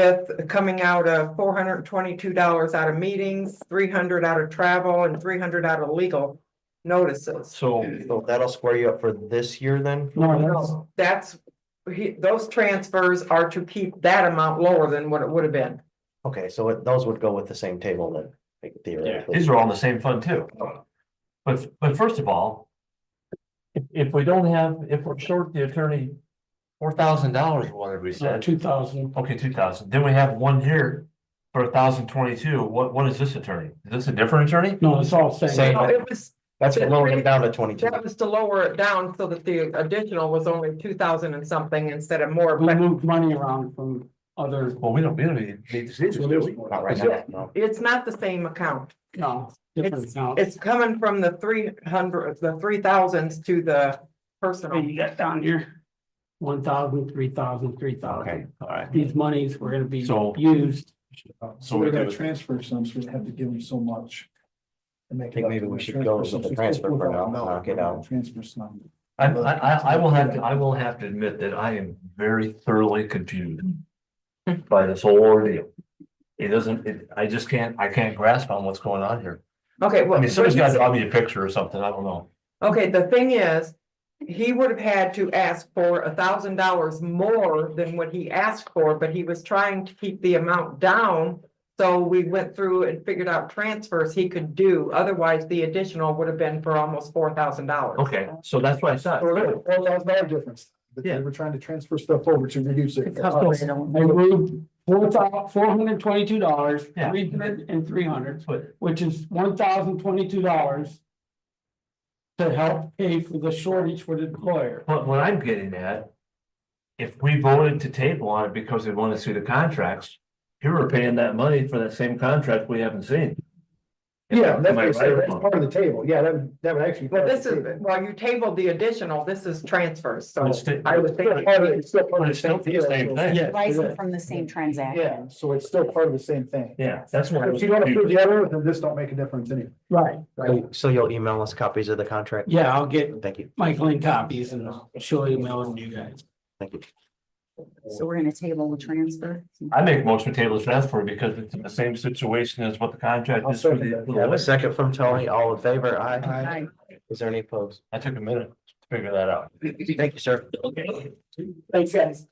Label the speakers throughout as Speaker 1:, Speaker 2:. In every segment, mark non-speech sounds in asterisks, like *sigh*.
Speaker 1: with coming out of four hundred and twenty-two dollars out of meetings, three hundred out of travel, and three hundred out of legal notices.
Speaker 2: So,
Speaker 3: So that'll square you up for this year then?
Speaker 1: No, That's, he, those transfers are to keep that amount lower than what it would have been.
Speaker 3: Okay, so it- those would go with the same table then, like,
Speaker 2: yeah,
Speaker 3: theoretically.
Speaker 2: these are all in the same fund too. But, but first of all. If, if we don't have, if we're short the attorney. Four thousand dollars, whatever we said,
Speaker 4: two thousand.
Speaker 2: okay, two thousand, then we have one here. For a thousand twenty-two, what, what is this attorney? Is this a different attorney?
Speaker 4: No, it's all same.
Speaker 3: Same.
Speaker 1: No, It was,
Speaker 3: That's what lowered it down to twenty-two.
Speaker 1: that was to lower it down so that the additional was only two thousand and something instead of more,
Speaker 4: We
Speaker 2: Mm-hmm.
Speaker 1: but
Speaker 4: moved money around from other,
Speaker 2: Well, we don't, we don't need need to see this.
Speaker 3: Not right now, no.
Speaker 1: it's not the same account.
Speaker 4: no, different accounts.
Speaker 1: It's coming from the three hundred, the three thousands to the personal.
Speaker 4: You got down here, one thousand, three thousand, three
Speaker 2: Okay,
Speaker 4: thousand.
Speaker 2: all right.
Speaker 4: These monies were gonna be
Speaker 2: So-
Speaker 4: used.
Speaker 2: So
Speaker 5: So
Speaker 2: we
Speaker 5: we gotta
Speaker 2: do it.
Speaker 5: transfer some, so we have to give them so much.
Speaker 3: I think maybe we should go with the transfer for now, knock it out.
Speaker 5: Transfer some.
Speaker 2: I, I, I- I will have to, I will have to admit that I am very thoroughly *laughs* confused by this whole ordeal. It doesn't, it, I just can't, I can't grasp on what's going on here.
Speaker 1: Okay,
Speaker 2: I
Speaker 1: well,
Speaker 2: mean, somebody's got to draw me a picture or something, I don't know.
Speaker 1: okay, the thing is, he would have had to ask for a thousand dollars more than what he asked for, but he was trying to keep the amount down. So we went through and figured out transfers he could do, otherwise the additional would have been for almost four thousand dollars.
Speaker 2: Okay, so that's what I thought.
Speaker 5: Well, that was our difference, but
Speaker 2: Yeah.
Speaker 5: they were trying to transfer stuff over to reduce it. Uh,
Speaker 4: They moved four thou, four hundred twenty-two dollars,
Speaker 2: Yeah.
Speaker 4: three hundred and three hundred,
Speaker 2: But
Speaker 4: which is one thousand twenty-two dollars. To help pay for the shortage for the employer.
Speaker 2: but what I'm getting at, if we voted to table on it because we want to see the contracts, here we're paying that money for that same contract we haven't seen.
Speaker 5: Yeah, that's
Speaker 2: Am
Speaker 5: what
Speaker 2: I
Speaker 5: I said,
Speaker 2: right
Speaker 5: that's
Speaker 2: or wrong?
Speaker 5: part of the table, yeah, that, would- that would actually.
Speaker 1: But this is, well, you tabled the additional, this is transfers, so
Speaker 2: It's still-
Speaker 1: I would think.
Speaker 5: Part of it, It's still part
Speaker 2: But
Speaker 5: of
Speaker 2: it's still the
Speaker 5: deal,
Speaker 2: same
Speaker 5: so-
Speaker 2: thing.
Speaker 4: Yeah.
Speaker 6: Licensed from the same transaction.
Speaker 5: Yeah, so it's still part of the same thing.
Speaker 2: Yeah, that's what I
Speaker 5: If
Speaker 2: was.
Speaker 5: you don't approve
Speaker 2: confused.
Speaker 5: the other, then this don't make a difference anyway.
Speaker 4: Right.
Speaker 3: So- So you'll email us copies of the contract?
Speaker 4: Yeah, I'll get
Speaker 3: Thank you,
Speaker 4: Michael in copies and I'll show you mail to you guys.
Speaker 3: thank you.
Speaker 6: So we're gonna table the transfer.
Speaker 2: I make motion to table the transfer because it's in the same situation as what the contract
Speaker 5: I'll
Speaker 2: is. for
Speaker 5: second
Speaker 2: the-
Speaker 5: that.
Speaker 2: for
Speaker 3: We have a
Speaker 2: the-
Speaker 3: second from Tony, all in favor, aye.
Speaker 6: Aye.
Speaker 3: Is there any opposed?
Speaker 2: I took a minute to figure that out.
Speaker 3: Thank you, sir.
Speaker 2: Okay.
Speaker 4: Thanks, guys.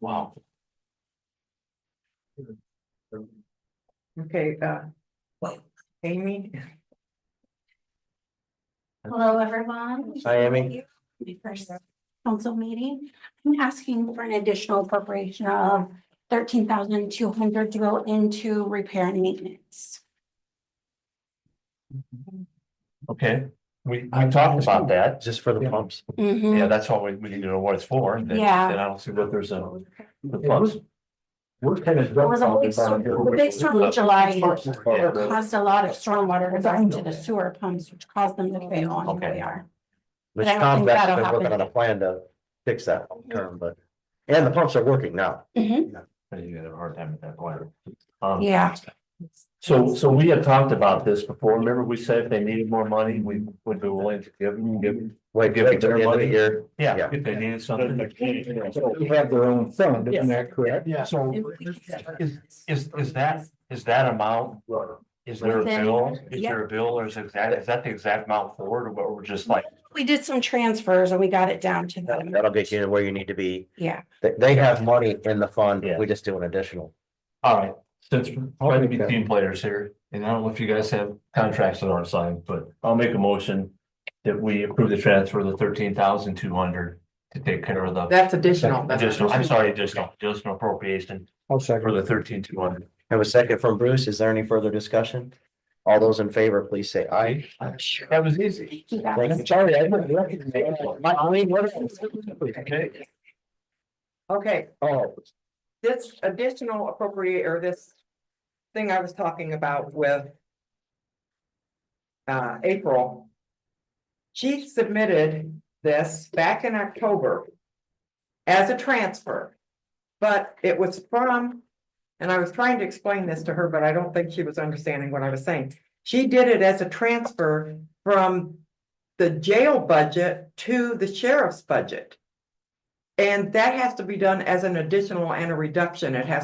Speaker 2: Wow.
Speaker 1: Okay, uh, Amy?
Speaker 7: Hello, everyone.
Speaker 3: Hi, Amy.
Speaker 7: My first council meeting. I'm asking for an additional appropriation of thirteen thousand two hundred to go into repair and maintenance.
Speaker 2: Okay, we, we talked about that.
Speaker 3: Just for the pumps.
Speaker 2: Yeah, that's all we, we need to know what it's for. and then-
Speaker 7: Yeah.
Speaker 2: Then I don't see what there's a. the
Speaker 5: It
Speaker 2: plus.
Speaker 5: was- We're kind of.
Speaker 7: There was a big storm, the big storm in July caused a lot of stormwater to go into the sewer pumps, which caused them to fail on who
Speaker 2: Okay.
Speaker 7: we are.
Speaker 3: Which
Speaker 7: But I don't
Speaker 3: Tom's
Speaker 7: think that'll
Speaker 3: actually been working on
Speaker 7: happen.
Speaker 3: a plan to fix that term, but, and the pumps are working now.
Speaker 2: You had a hard time at that point. Um,
Speaker 7: Yeah.
Speaker 2: So, so we had talked about this before. Remember we said if they needed more money, we would be willing to give them, give them.
Speaker 3: Wait,
Speaker 2: Give
Speaker 3: wait till
Speaker 2: their
Speaker 3: the end of the
Speaker 2: money.
Speaker 3: year.
Speaker 2: Yeah,
Speaker 3: Yeah.
Speaker 2: if they needed something.
Speaker 5: They have their own fund, isn't that correct?
Speaker 4: Yeah.
Speaker 2: So is, is, is that, is that amount, is there a
Speaker 7: Within-
Speaker 2: bill? Is
Speaker 7: yeah.
Speaker 2: there a bill or is it exact, is that the exact amount for it or what we're just like?
Speaker 7: We did some transfers and we got it down to that. amount.
Speaker 3: That'll get you to where you need to be.
Speaker 7: Yeah.
Speaker 3: They, they have money in the fund,
Speaker 2: Yeah.
Speaker 3: we just do an additional.
Speaker 2: All right, since we're trying to be
Speaker 5: Okay.
Speaker 2: team players here, and I don't know if you guys have contracts that aren't signed, but I'll make a motion. That we approve the transfer of the thirteen thousand two hundred to take care of the
Speaker 1: That's additional. that's-
Speaker 2: additional, I'm sorry, additional, additional appropriation
Speaker 5: I'll second.
Speaker 2: for the thirteen two hundred.
Speaker 3: Have a second from Bruce. Is there any further discussion? All those in favor, please say aye.
Speaker 2: That was easy.
Speaker 7: Thank you, guys.
Speaker 5: Sorry, I didn't recognize. My, I mean, what? Okay.
Speaker 1: Okay,
Speaker 3: Oh,
Speaker 1: this additional appropriate, or this thing I was talking about with uh, April. She submitted this back in October as a transfer, but it was from, and I was trying to explain this to her, but I don't think she was understanding what I was saying. She did it as a transfer from the jail budget to the sheriff's budget. And that has to be done as an additional and a reduction. It has